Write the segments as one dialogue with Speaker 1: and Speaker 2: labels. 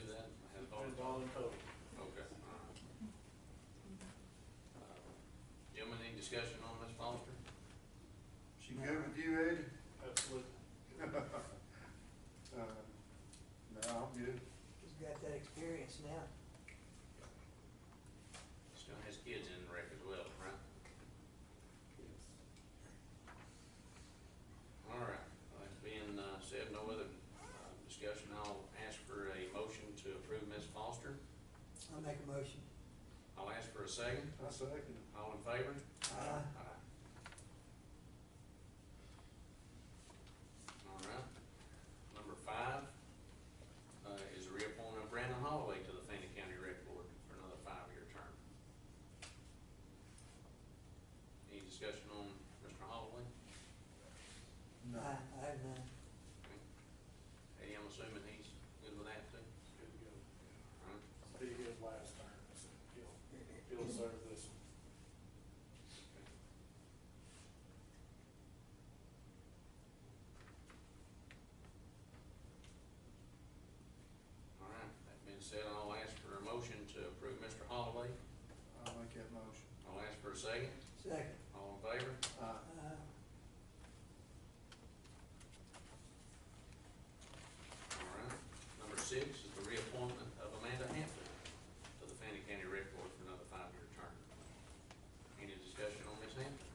Speaker 1: Uh, discussion on Ms. Foster?
Speaker 2: She good with you, Ed?
Speaker 3: Absolutely.
Speaker 2: Uh, No, I'm good.
Speaker 4: He's got that experience now.
Speaker 1: Still has kids in the wreck as well, right? All right, well, it's been uh, said, no other uh, discussion, I'll ask for a motion to approve Ms. Foster.
Speaker 4: I'll make a motion.
Speaker 1: I'll ask for a second,
Speaker 2: I second.
Speaker 1: all in favor?
Speaker 4: Aye.
Speaker 1: Aye. All right, number five uh, is a reappointment of Brandon Holloway to the Fannin County Rec Board for another five-year term. Any discussion on Mr. Holloway?
Speaker 4: Aye,
Speaker 2: No.
Speaker 4: I have none.
Speaker 1: Eddie, I'm assuming he's good with that too?
Speaker 3: Good to go.
Speaker 1: All right.
Speaker 3: He did last term, so he'll, he'll serve this one.
Speaker 1: All right, that being said, I'll ask for a motion to approve Mr. Holloway.
Speaker 2: I'll make that motion.
Speaker 1: I'll ask for a second.
Speaker 4: Second.
Speaker 1: All in favor?
Speaker 2: Aye.
Speaker 4: Uh,
Speaker 1: All right. Number six is the reappointment of Amanda Hampton to the Fannin County Rec Board for another five-year term. Any discussion on Ms. Hampton?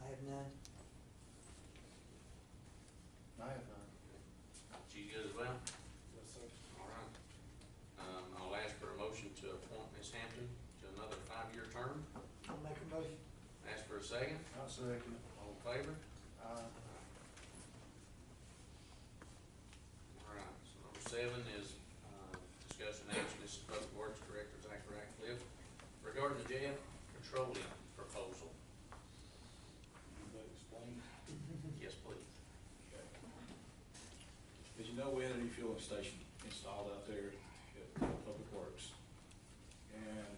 Speaker 4: I have none.
Speaker 2: I have none.
Speaker 1: She's good as well?
Speaker 3: Yes, sir.
Speaker 1: All right. Um, I'll ask for a motion to appoint Ms. Hampton to another five-year term.
Speaker 4: I'll make a motion.
Speaker 1: Ask for a second.
Speaker 2: I second.
Speaker 1: All in favor?
Speaker 2: Aye.
Speaker 1: All right, so number seven is uh, discussion action, this is Public Works Director Zachary Ratcliffe, regarding the jail petroleum proposal.
Speaker 3: You explain.
Speaker 1: Yes, please.
Speaker 5: As you know, we had a refueling station installed out there at uh, Public Works. And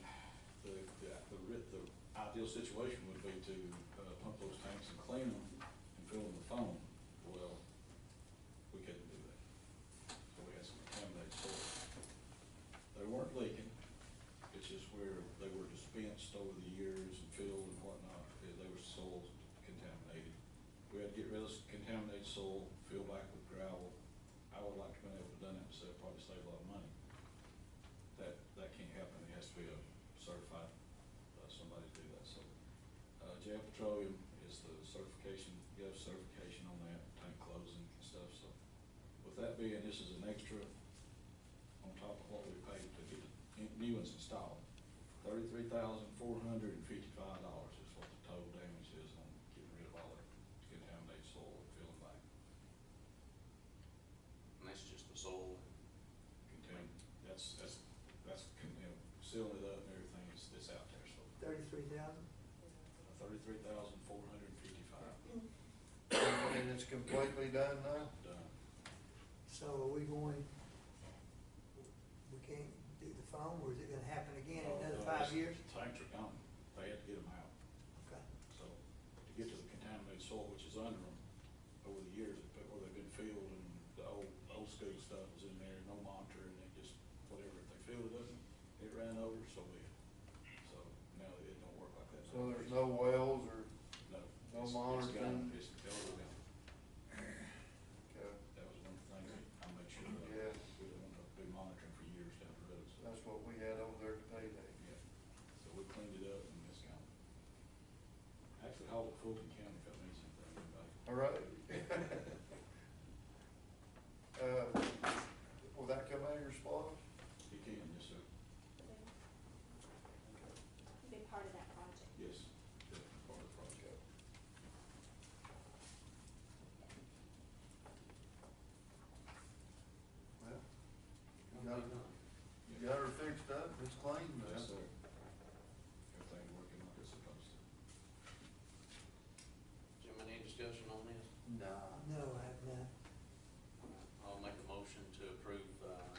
Speaker 5: the, the- the, ri- the ideal situation would be to uh, pump those tanks and clean them and fill them with foam. Well, we couldn't do that. So we had some contaminated soil. They weren't leaking, it's just where they were dispensed over the years and filled and whatnot, they- they were soil contaminated. We had to get rid of this contaminated soil, fill back with gravel. I would like to have been able to done that, so it'd probably save a lot of money. That, that can't happen, it has to be a certified, uh, somebody to do that, so. Uh, jail petroleum is the certification, you have certification on that, tank closing and stuff, so. With that being, this is an extra on top of what we paid to get the new ones installed. Thirty-three thousand, four hundred and fifty-five dollars is what the total damage is on getting rid of all the contaminated soil and filling back.
Speaker 1: And that's just the soil.
Speaker 5: Contain, that's, that's, that's, con- you know, sealing it up and everything is, that's out there, so. uh,
Speaker 4: Thirty-three thousand?
Speaker 5: Thirty-three thousand, four hundred and fifty-five
Speaker 2: And it's completely done now?
Speaker 5: done.
Speaker 4: So are we going, we can't do the phone, or is it gonna happen again in another five years?
Speaker 5: Tanks are gone. They had to get them out.
Speaker 4: Okay.
Speaker 5: So to get to the contaminated soil, which is under them, over the years, but where they've been filled and the old, old school stuff was in there, no monitor, and it just, whatever, if they filled it up, it ran over, so we, so now it don't work like that.
Speaker 2: So there's no wells or,
Speaker 5: No.
Speaker 2: no
Speaker 5: It's- it's
Speaker 2: monitoring?
Speaker 5: gone. It's totally gone.
Speaker 2: okay,
Speaker 5: That was one thing that I made sure of.
Speaker 2: Yeah.
Speaker 5: We don't want to be monitoring for years down the road, so,
Speaker 2: that's what we had over there today, Dave.
Speaker 5: yeah. So we cleaned it up and it's gone. Actually, all of Fulton County, if that means anything, anybody.
Speaker 2: All right. Uh, Will that come out of your spot?
Speaker 5: It can, yes, sir.
Speaker 6: Be part of that project.
Speaker 5: Yes. definitely part of the project.
Speaker 2: Okay. Well, you got, you got her fixed up, it's clean now.
Speaker 5: Yes, sir. Everything working like it's supposed to.
Speaker 1: Gentlemen, any discussion on this?
Speaker 2: Nah.
Speaker 4: Oh, No, I have none.
Speaker 1: I'll make a motion to approve, uh,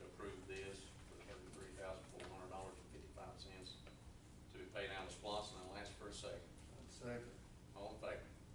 Speaker 1: to approve this for thirty-three thousand, four hundred dollars and fifty-five cents to be paid out of SPOS, and I'll ask for a second.
Speaker 2: Second.